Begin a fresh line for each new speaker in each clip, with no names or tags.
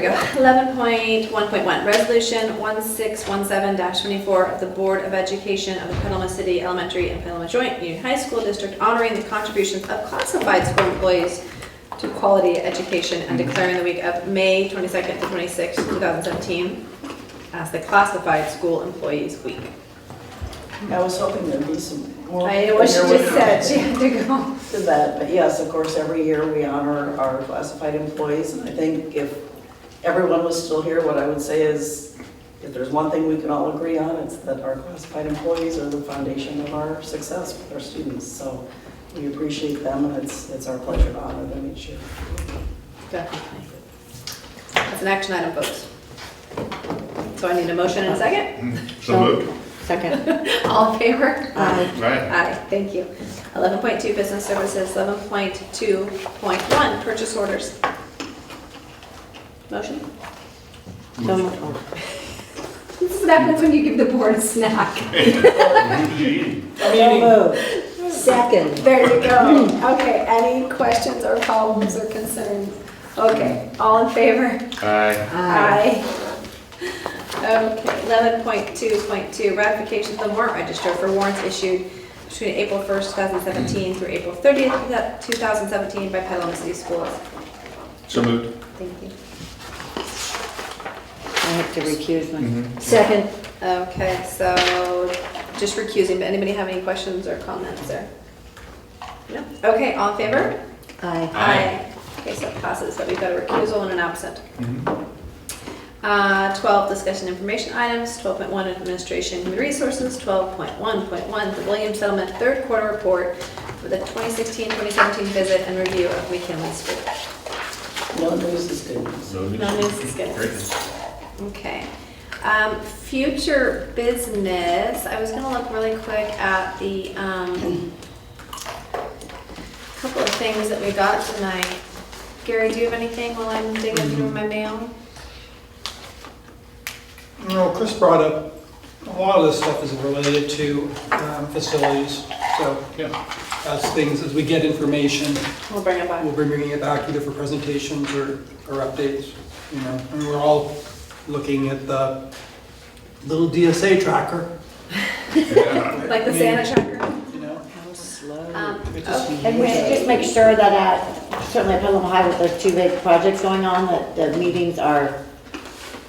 we go. 11.1.1, Resolution 1617-24 of the Board of Education of the Petaluma City Elementary and Petaluma Joint Union High School District honoring the contributions of classified school employees to quality education and declaring the week of May 22nd to 26th, 2017 as the Classified School Employees Week.
I was hoping there'd be some more.
I know what she
there
just
would
said, she had to go.
be To that, but yes, of course, every year we honor our classified employees, and I think if everyone was still here, what I would say is, if there's one thing we can all agree on, it's that our classified employees are the foundation of our success with our students, so we appreciate them, and it's, it's our pleasure to honor them each year.
Definitely. That's an action item, folks. So I need a motion and a second.
So moved.
Second.
All in favor?
Aye.
Right.
Aye, thank you. 11.2, business services, 11.2.1, purchase orders. Motion?
So moved.
This is what happens when you give the board a snack.
So moved. Second.
There you go. Okay, any questions or problems or concerns? Okay, all in favor?
Aye.
Aye.
Okay, eleven point two point two, ratification of the warrant register for warrants issued between April first, two thousand seventeen through April thirtieth, two thousand seventeen by Petaluma City Schools.
So moved.
Thank you.
I have to recuse
Mm-hmm.
myself. Second.
Okay, so just recusing, but anybody have any questions or comments or? No? Okay, all in favor?
Aye.
Aye.
Okay, so it passes, but we've got a recusal and an absent.
Mm-hmm.
Uh, 12, discussion information items, 12.1 administration human resources, 12.1.1 the Williams Settlement third quarter report for the 2016-2017 visit and review of McKinley School.
No news is good news.
So moved.
No news is good.
Mm-hmm. Great.
Okay. Um, Future business, I was gonna look really quick at the um, couple of things that we got tonight. Gary, do you have anything while I'm digging
Mm-hmm.
through my mail?
You know, Chris brought up, a lot of this stuff is related to um, facilities, so,
Yeah.
as things, as we get information,
We'll bring it
we'll
back.
be bringing it back either for presentations or, or updates, you know, and we're all looking at the little DSA tracker,
Like the Santa tracker?
you know?
How slow.
Um,
It just-
okay.
And we should just make sure that at, certainly at Pelham High with those two big projects going on, that the meetings are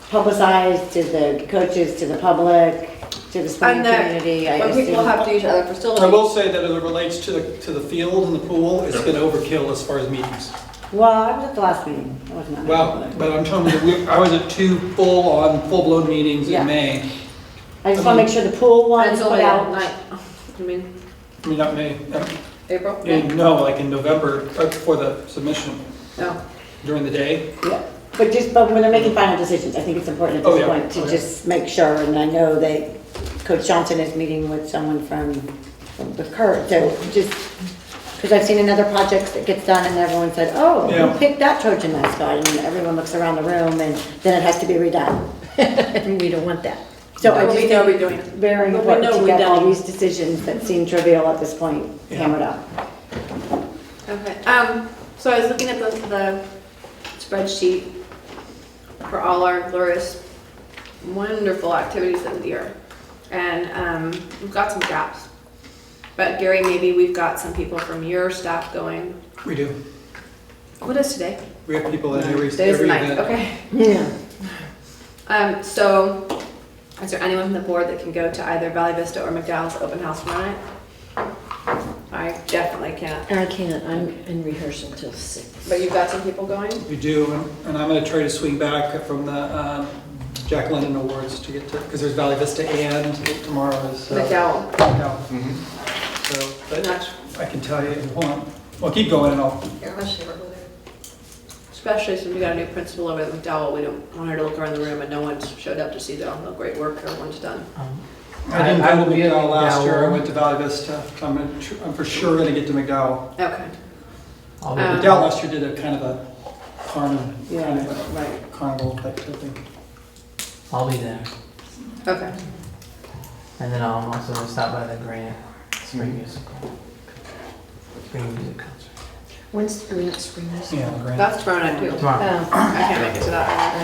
publicized to the coaches, to the public, to the sporting
And the-
community. I
But we will
assume.
have to use other facilities.
I will say that as it relates to the, to the field and the pool, it's been overkill as far as meetings.
Well, I was at the last meeting. I was not. at
Well,
the-
but I'm telling you, we- I was at two full-on, full-blown meetings
Yeah.
in May.
I just want to make sure the pool one is
Until
put
that
out.
night, I mean,
I mean, not May, uh,
April?
In, no, like in November, uh, before the submission,
No.
during the day.
Yeah, But just, but when they're making final decisions, I think it's important at
Oh,
this
yeah.
point to
Oh, yeah.
just make sure. And I know that Coach Johnson is meeting with someone from, from the Kurt, so just, because I've seen another project that gets done and everyone said, oh,
Yeah.
who picked that Trojan mascot? And everyone looks around the room and then it has to be redone. And we don't want that. So
But
I just
we
think
know we're
it's
doing it.
very
But we
important
know
to
we're
get all
done.
these decisions that seem trivial at this point
Yeah.
hammered out.
Okay, um, so I was looking at the, the spreadsheet for all our glorious, wonderful activities of the year. And, um, we've got some gaps. But Gary, maybe we've got some people from your staff going,
We do.
what is today?
We have people at every,
Today's the
every
ninth,
event.
okay.
Yeah.
Um, so, is there anyone from the board that can go to either Valley Vista or McDowell's open house tomorrow night? I definitely can't,
I can't, I'm in rehearsal till six.
but you've got some people going?
We do, and- and I'm gonna try to swing back from the, um, Jack London Awards to get to, because there's Valley Vista and tomorrow is. uh,
McDowell,
McDowell.
Mm-hmm.
So, but
not,
I can tell you, hold on, well, keep going and I'll,
especially since we got a new principal over at McDowell, we don't want her to look around the room and no one's showed up to see the, all the great work everyone's done.
Um,
I didn't
I- I
go
will
to
be at
McDowell last year, I
McDowell.
went to Valley Vista. I'm, gonna tr- I'm for sure gonna get to McDowell.
Okay.
I'll
Um,
McDowell last year did a kind of a carnival, kind
Yeah.
of
Right,
a carnival type type thing.
I'll be there,
okay.
and then I'll also stop by the Grant Spring Musical. Spring Music Concert.
When's the grant screen?
Yeah, Grant.
That's tomorrow night too.
tomorrow.
Oh.
I can't make it to that.